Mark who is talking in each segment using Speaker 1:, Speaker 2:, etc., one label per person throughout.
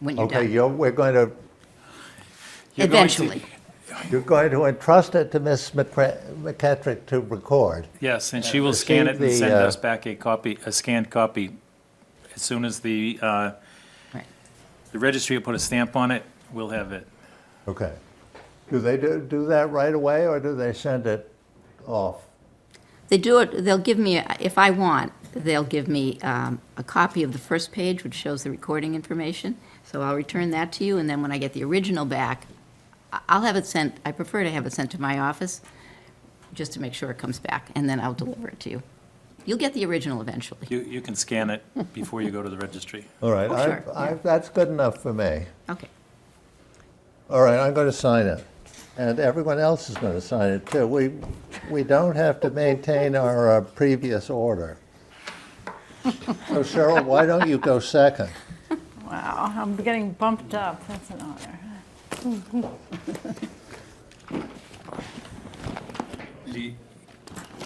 Speaker 1: when you're
Speaker 2: Okay,
Speaker 1: done,
Speaker 2: you're, we're going to,
Speaker 3: You're going to-
Speaker 1: eventually.
Speaker 2: you're going to entrust it to Ms. McCra- McCatrick to record.
Speaker 3: Yes, and she will scan it and
Speaker 2: receive
Speaker 3: send
Speaker 2: the, uh,
Speaker 3: us back a copy, a scanned copy. As soon as the, uh,
Speaker 1: Right.
Speaker 3: the registry will put a stamp on it, we'll have it.
Speaker 2: Okay. Do they do, do that right away, or do they send it off?
Speaker 1: They do it, they'll give me, if I want, they'll give me um, a copy of the first page, which shows the recording information. So I'll return that to you, and then when I get the original back, I- I'll have it sent, I prefer to have it sent to my office, just to make sure it comes back, and then I'll deliver it to you. You'll get the original eventually.
Speaker 3: You, you can scan it before you go to the registry.
Speaker 2: All right,
Speaker 1: Oh,
Speaker 2: I,
Speaker 1: sure,
Speaker 2: I, that's good enough for me.
Speaker 1: Okay.
Speaker 2: All right, I'm going to sign it, and everyone else is going to sign it too. We, we don't have to maintain our uh, previous order. So Cheryl, why don't you go second?
Speaker 4: Wow, I'm getting bumped up. That's an honor.
Speaker 3: Do you-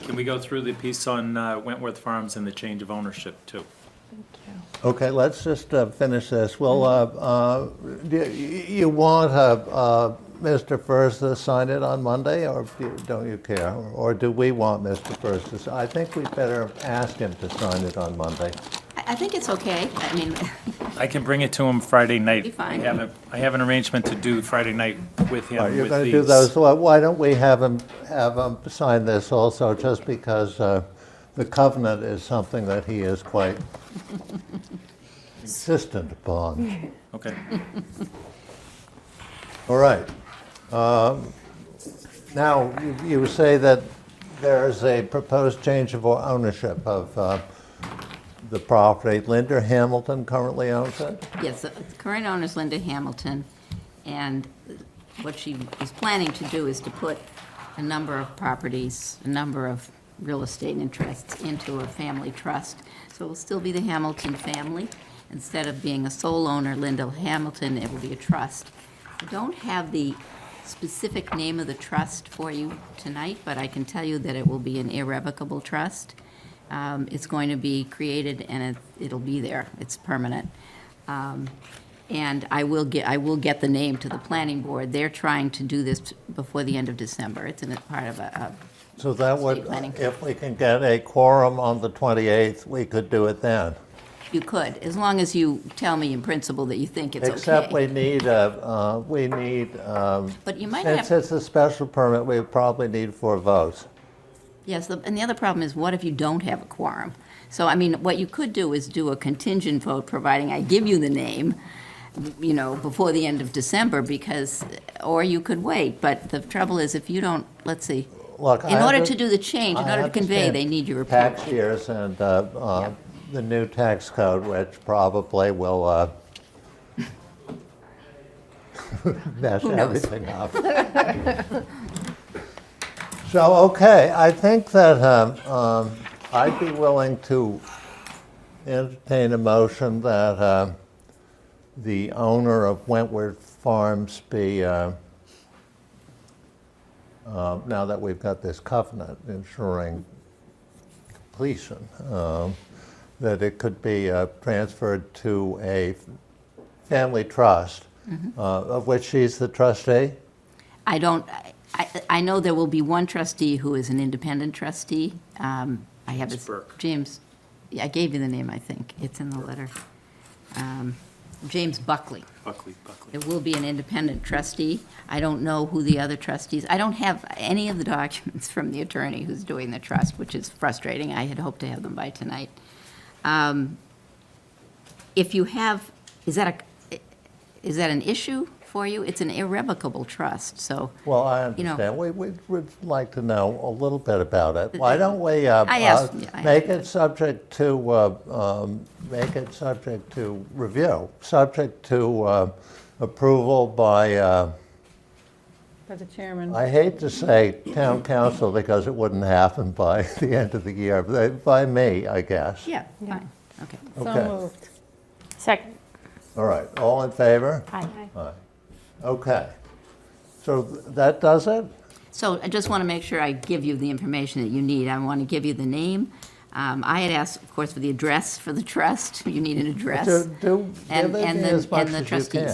Speaker 3: Can we go through the piece on uh, Wentworth Farms and the change of ownership too?
Speaker 2: Okay, let's just uh, finish this. Well, uh, uh, do you you want uh, uh, Mr. Furs to sign it on Monday, or do you- don't you care? Or do we want Mr. Furs to? si- I think we better ask him to sign it on Monday.
Speaker 1: I I think it's okay. I mean,
Speaker 3: I can bring it to him Friday night.
Speaker 1: Be fine.
Speaker 3: I have a- I have an arrangement to do Friday night with him
Speaker 2: All right,
Speaker 3: with
Speaker 2: You're going to
Speaker 3: these.
Speaker 2: do those, Well, why don't we have him, have him sign this also, just because uh, the covenant is something that he is quite insistent upon.
Speaker 3: Okay,
Speaker 2: All right. Um, Now, you- you say that there is a proposed change of ownership of uh, the property. Linder Hamilton currently owns it?
Speaker 1: yes, the current owner is Linda Hamilton, and what she is planning to do is to put a number of properties, a number of real estate interests into a family trust. So it will still be the Hamilton family. Instead of being a sole owner, Linda Hamilton, it will be a trust. I don't have the specific name of the trust for you tonight, but I can tell you that it will be an irrevocable trust. Um, It's going to be created and it- it'll be there. It's permanent. Um, And I will get, I will get the name to the planning board. They're trying to do this before the end of December. It's in a part of a,
Speaker 2: So that would,
Speaker 1: Estate planning.
Speaker 2: if we can get a quorum on the 28th, we could do it then.
Speaker 1: a- you could, as long as you tell me in principle that you think it's okay.
Speaker 2: Except we need, a- uh, we need, um,
Speaker 1: But you might
Speaker 2: since
Speaker 1: have,
Speaker 2: it's a special permit, we probably need four votes.
Speaker 1: yes, the- and the other problem is what if you don't have a quorum? So, I mean, what you could do is do a contingent vote, providing I give you the name, you know, before the end of December because, or you could wait. But the trouble is if you don't, let's see,
Speaker 2: Look,
Speaker 1: in
Speaker 2: I
Speaker 1: order
Speaker 2: under-
Speaker 1: to do the change, in
Speaker 2: I
Speaker 1: order to convey,
Speaker 2: understand
Speaker 1: they need your approval.
Speaker 2: Tax years and uh, uh, the new tax code, which probably will uh, mess
Speaker 1: Who knows?
Speaker 2: everything up. So, okay, I think that um, um, I'd be willing to entertain a motion that uh, the owner of Wentworth Farms be, uh, uh, now that we've got this covenant ensuring completion, um, that it could be uh, transferred to a family trust,
Speaker 1: Mm-hmm.
Speaker 2: uh, of which she's the trustee?
Speaker 1: I don't, I- I, I know there will be one trustee who is an independent trustee. Um, I have his.
Speaker 3: It's Burke.
Speaker 1: James, yeah, I gave you the name, I think. It's in the letter. Um, James Buckley.
Speaker 3: Buckley, Buckley.
Speaker 1: There will be an independent trustee. I don't know who the other trustees, I don't have any of the documents from the attorney who's doing the trust, which is frustrating. I had hoped to have them by tonight. Um, If you have, is that a, is that an issue for you? It's an irrevocable trust, so.
Speaker 2: Well, I
Speaker 1: You know-
Speaker 2: understand. We, we would like to know a little bit about it. Why don't we, uh,
Speaker 1: I asked-
Speaker 2: uh,
Speaker 1: yeah, I
Speaker 2: make
Speaker 1: asked
Speaker 2: it subject to, uh, um, make it subject to review, subject to, uh, approval by, uh,
Speaker 4: By the chairman.
Speaker 2: I hate to say town council because it wouldn't happen by the end of the year, but by me, I guess.
Speaker 1: Yeah, fine, okay.
Speaker 2: okay.
Speaker 4: So moved.
Speaker 5: Second.
Speaker 2: All right, all in favor?
Speaker 5: Aye.
Speaker 2: Okay. So th- that does it?
Speaker 1: So I just want to make sure I give you the information that you need. I want to give you the name. Um, I had asked, of course, for the address for the trust. You need an address.
Speaker 2: Do, do
Speaker 1: And-
Speaker 2: give it
Speaker 1: and the-
Speaker 2: as much
Speaker 1: and the
Speaker 2: as you
Speaker 1: trustees.
Speaker 2: can.